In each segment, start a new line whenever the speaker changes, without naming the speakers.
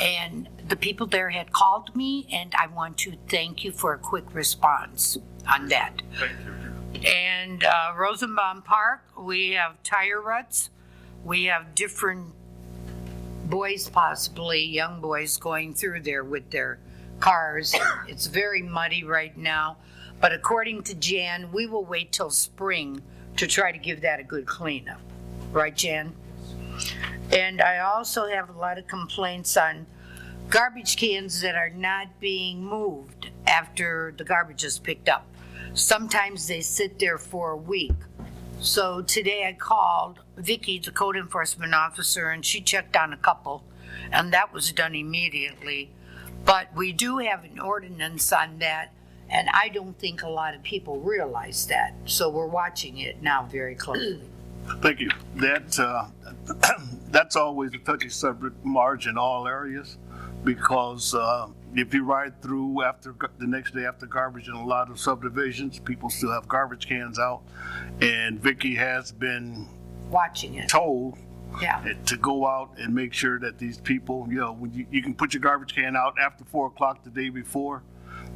And the people there had called me, and I want to thank you for a quick response on that.
Thank you.
And uh, Rosenbaum Park, we have tire ruts. We have different boys, possibly young boys, going through there with their cars. It's very muddy right now. But according to Jan, we will wait till spring to try to give that a good cleanup. Right, Jan? And I also have a lot of complaints on garbage cans that are not being moved after the garbage is picked up. Sometimes they sit there for a week. So today I called Vicky, the code enforcement officer, and she checked on a couple, and that was done immediately. But we do have an ordinance on that, and I don't think a lot of people realize that. So we're watching it now very closely.
Thank you. That, uh, that's always a touchy subject, Marge, in all areas, because uh, if you ride through after, gar- the next day after garbage in a lot of subdivisions, people still have garbage cans out. And Vicky has been
Watching it,
told
yeah.
to go out and make sure that these people, you know, when you, you can put your garbage can out after four o'clock the day before,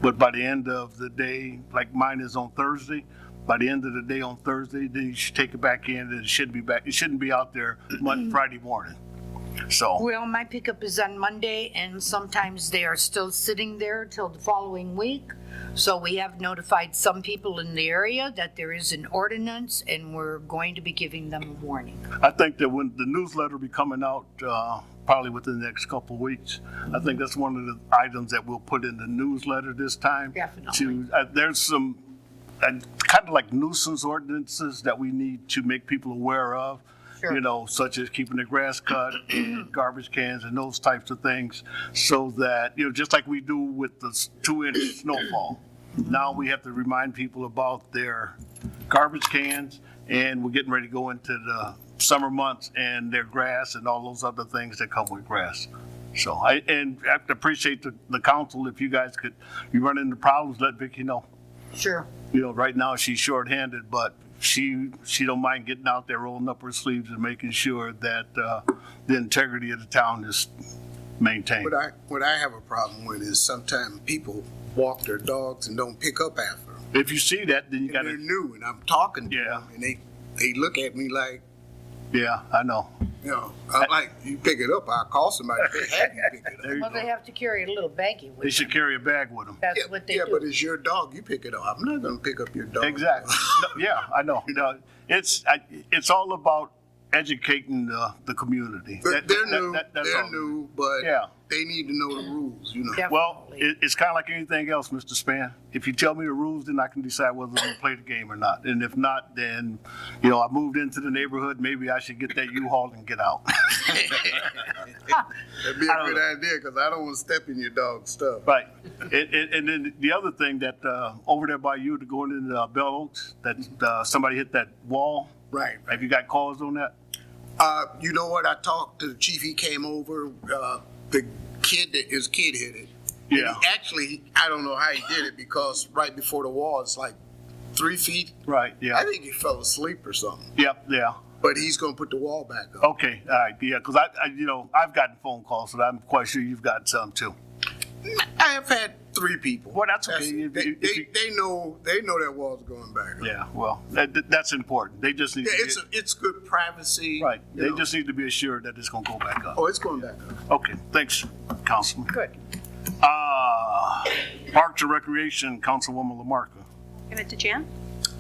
but by the end of the day, like mine is on Thursday, by the end of the day on Thursday, then you should take it back in and it should be back, it shouldn't be out there Monday, Friday morning. So,
Well, my pickup is on Monday, and sometimes they are still sitting there till the following week. So we have notified some people in the area that there is an ordinance, and we're going to be giving them a warning.
I think that when the newsletter will be coming out, uh, probably within the next couple of weeks, I think that's one of the items that we'll put in the newsletter this time.
Definitely.
To, uh, there's some and uh, kind of like nuisance ordinances that we need to make people aware of.
Sure.
You know, such as keeping the grass cut, and garbage cans, and those types of things, so that you know, just like we do with the two-inch snowfall. Now we have to remind people about their garbage cans, and we're getting ready to go into the summer months and their grass and all those other things that come with grass. So I and I appreciate the, the council if you guys could, you run into problems, let Vicky know
Sure.
you know, right now she's shorthanded, but she, she don't mind getting out there, rolling up her sleeves and making sure that, uh, the integrity of the town is maintained.
What I, what I have a problem with is sometimes people walk their dogs and don't pick up after them.
If you see that, then you
And they're
gotta,
new and I'm talking to
Yeah.
them and they, they look at me like,
yeah, I know.
you know, I'm like, you pick it up, I'll call somebody, they have you pick it up.
There you
Well, they
go.
have to carry a little baggie
They
with them.
should carry a bag with them.
That's
Yeah,
what they
Yeah, but
do.
it's your dog, you pick it up. I'm not gonna pick up your dog.
Exactly. No, Yeah, I know. No, it's, I, it's all about educating the, the community.
But
That-
they're
that-
new,
that- that's all.
they're new, but
Yeah.
they need to know the rules, you know?
Def-
Well, it, it's kind of like anything else, Mr. Span. If you tell me the rules, then I can decide whether I'm gonna play the game or not. And if not, then, you know, I moved into the neighborhood, maybe I should get that U-Haul and get out.
That'd be
I
a
don't
good idea, cause I don't wanna step in your dog's stuff.
Right. And, and, and then the other thing that, uh, over there by you to going into uh, Bell Oaks, that, uh, somebody hit that wall.
Right.
Have you got calls on that?
Uh, you know what? I talked to the chief. He came over. Uh, the kid that his kid hit it. And
Yeah.
He actually, I don't know how he did it because right before the wall, it's like three feet.
Right,
I
yeah.
think he fell asleep or something.
Yep, yeah.
But he's gonna put the wall back up.
Okay, all right, yeah, because I, I, you know, I've gotten phone calls, and I'm quite sure you've got some too.
I have had three people.
Oh. Well, that's okay. If-
they,
if-
they,
if you-
they know they know that wall's going back up.
Yeah, well, that, that's important. They just need
Yeah,
to
it's
get-
a, it's good privacy.
Right,
you
they
know.
just need to be assured that it's gonna go back up.
oh, it's going back up.
Okay, thanks, Councilman.
Good.
Uh, Parks and Recreation, Councilwoman Lamarcus.
Give it to Jan.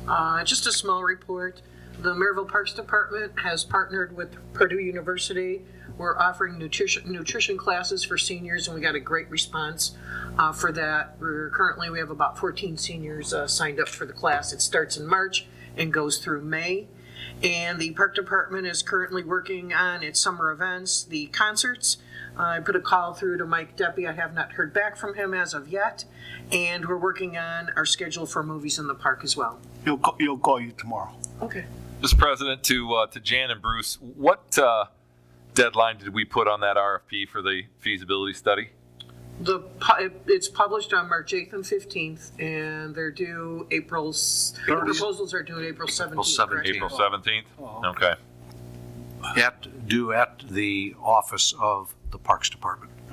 Uh, Just a small report. The Maryville Parks Department has partnered with Purdue University. We're offering nutrition, nutrition classes for seniors, and we got a great response uh, for that. We're currently, we have about 14 seniors uh, signed up for the class. It starts in March and goes through May. And the Park Department is currently working on its summer events, the concerts. Uh, I put a call through to Mike Deppie. I have not heard back from him as of yet. And we're working on our schedule for movies in the park as well.
He'll, ca- he'll call you tomorrow.
Okay.
Mr. President, to, uh, to Jan and Bruce, what, uh, deadline did we put on that RFP for the feasibility study?
The, pu- it- it's published on March 8th and 15th, and they're due April, s- the proposals are due in April 17th. correct?
April 17th? Okay.
at, due at the office of the Parks Department.